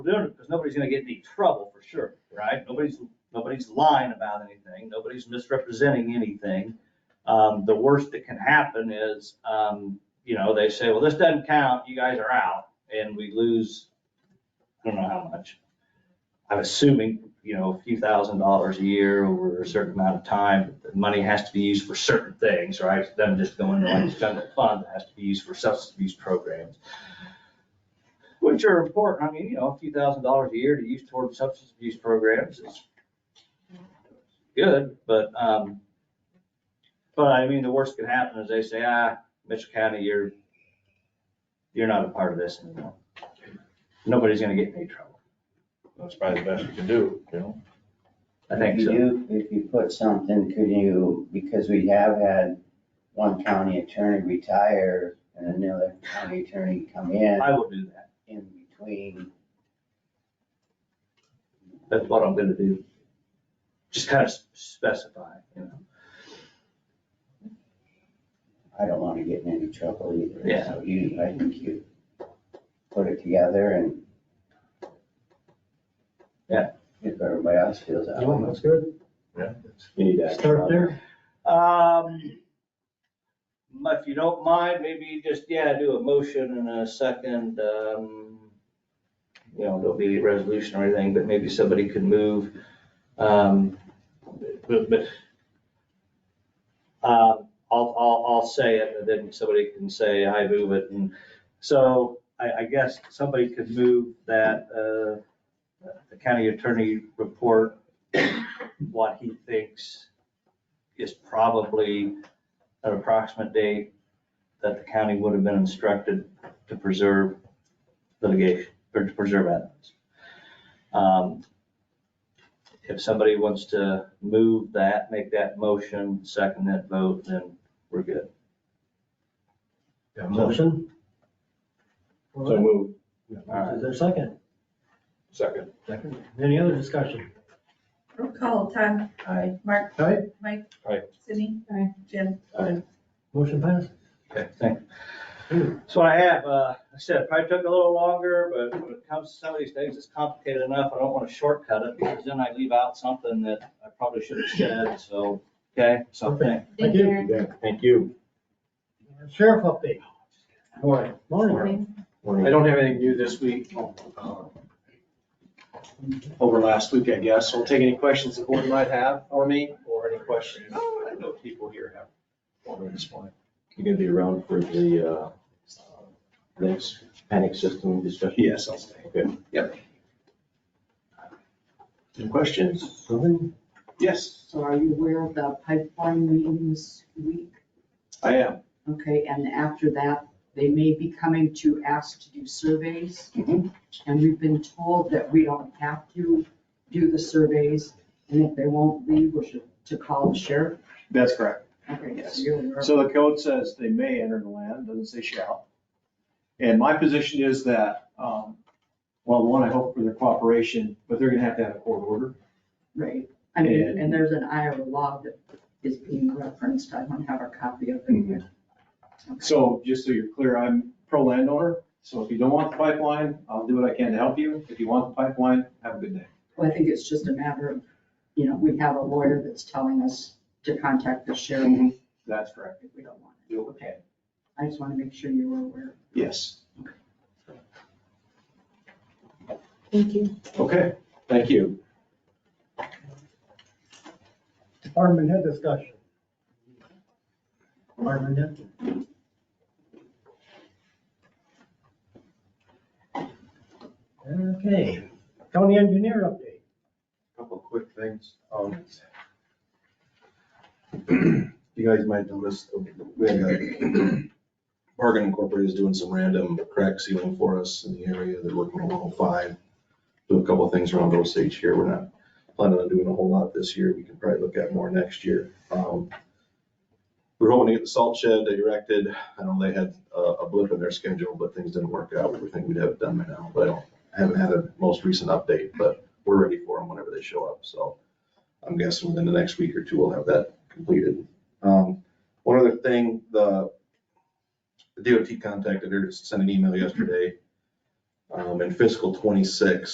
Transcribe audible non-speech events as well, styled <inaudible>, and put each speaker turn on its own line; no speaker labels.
because nobody's gonna get any trouble for sure, right? Nobody's, nobody's lying about anything, nobody's misrepresenting anything. Um, the worst that can happen is, um, you know, they say, well, this doesn't count, you guys are out, and we lose, I don't know how much. I'm assuming, you know, a few thousand dollars a year over a certain amount of time, the money has to be used for certain things, right? It doesn't just go into like general fund, it has to be used for substance abuse programs. Which are important, I mean, you know, a few thousand dollars a year to use toward substance abuse programs is good, but, um, but I mean, the worst that can happen is they say, ah, Mitchell County, you're, you're not a part of this anymore. Nobody's gonna get in any trouble,
That's probably the best you can do, you know?
I think
If
so.
you, if you put something, could you, because we have had one county attorney retire and another county attorney come in,
I will do that,
in between.
that's what I'm gonna do. Just kind of specify, you know,
I don't wanna get in any trouble either.
Yeah.
So you, I think you put it together and.
Yeah.
If everybody else feels that
Oh,
way.
that's good.
you need action
Start
on that.
there.
Um, if you don't mind, maybe just, yeah, do a motion and a second, um, you know, there'll be a resolution or anything, but maybe somebody could move, um, but, but, um, I'll, I'll, I'll say it, and then somebody can say, I move it, and so I, I guess somebody could move that, uh, the county attorney report, what he thinks is probably an approximate date that the county would have been instructed to preserve litigation, or to preserve evidence. Um, If somebody wants to move that, make that motion, second that vote, then we're good.
Got a motion? All
So
right.
move,
Is there a second?
second.
Second. Any other discussion?
Roll call, Todd.
Aye.
Mark.
Aye.
Mike.
Aye.
Sydney. Jim.
Motion passed?
Okay, thanks. So I have, uh, I said, it probably took a little longer, but when it comes to some of these things, it's complicated enough. I don't want to shortcut it because then I leave out something that I probably should have said, so, okay, so thank
Thank you.
Thank you.
Sheriff update.
Morning.
Morning.
I don't have anything new this week. uh, Over last week, I guess. I'll take any questions the board might have for me or any questions Oh, I know people here have for me this morning.
You gonna be around for the, uh, next panic system discussion?
Yes, I'll stay.
Okay.
Any questions?
Morning.
Yes,
So are you aware of the pipeline meeting this week?
I am.
Okay, and after that, they may be coming to ask to do surveys.
Mhm.
And we've been told that we don't have to do the surveys, and if they won't leave, we're to- to call the sheriff.
That's correct.
Okay,
Yes.
so you're aware of
So the code says they may enter the land, doesn't say shall. And my position is that, um, well, one, I hope for their cooperation, but they're gonna have to have a court order.
Right, I mean,
And-
and there's an Iowa law that is being referenced, I don't have a copy of it.
Mhm. So just so you're clear, I'm pro landowner, so if you don't want the pipeline, I'll do what I can to help you. If you want the pipeline, have a good day.
Well, I think it's just a matter of, you know, we have a lawyer that's telling us to contact the sheriff
That's correct.
if we don't want it.
You-
Okay. I just want to make sure you were aware.
Yes,
Thank you.
okay, thank you.
Department head discussion. Department head. Okay. County engineer update.
Couple of quick things. Um, <clears throat> You guys might notice, we had a- Bargain Incorporated is doing some random crack sealing for us in the area. They're working on 105. Do a couple of things around Osage here. We're not planning on doing a whole lot this year. We can probably look at more next year. Um, We're hoping to get the salt shed erected. I know they had a a blip in their schedule, but things didn't work out. We think we'd have it done by now, but I don't, I haven't had a most recent update, but we're ready for them whenever they show up, so I'm guessing within the next week or two, we'll have that completed. Um, one other thing, the the DOT contacted her, sent an email yesterday. Um, in fiscal twenty-six,